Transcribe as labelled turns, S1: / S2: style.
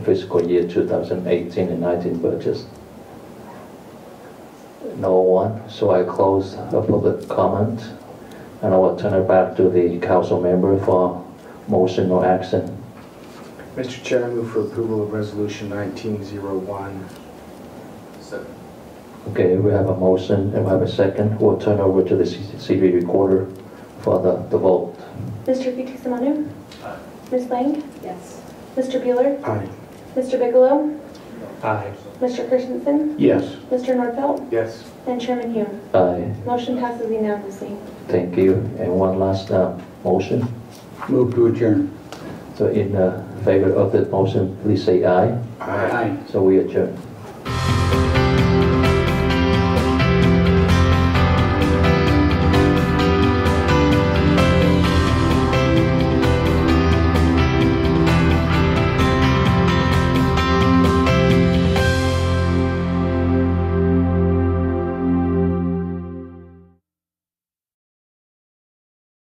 S1: fiscal year 2018 and 19 budgets. No one, so I close the public comment, and I will turn it back to the council member for motion or action.
S2: Mr. Chair, I move for approval of Resolution 1901.
S3: Second.
S1: Okay, we have a motion, and we have a second. We'll turn over to the CV recorder for the the vote.
S4: Mr. Fitzsimonu,
S3: Aye.
S4: Ms. Lang?
S5: Yes.
S4: Mr. Bueller?
S2: Aye.
S4: Mr. Bigelow?
S2: Aye.
S4: Mr. Christensen?
S2: Yes.
S4: Mr. Nordfeld?
S2: Yes.
S4: And Chairman Hume.
S1: Aye,
S4: Motion passes unanimously.
S1: thank you. And one last uh, motion.
S6: Move to adjourn.
S1: So in uh, favor of that motion, please say aye.
S2: Aye.
S1: So we adjourn.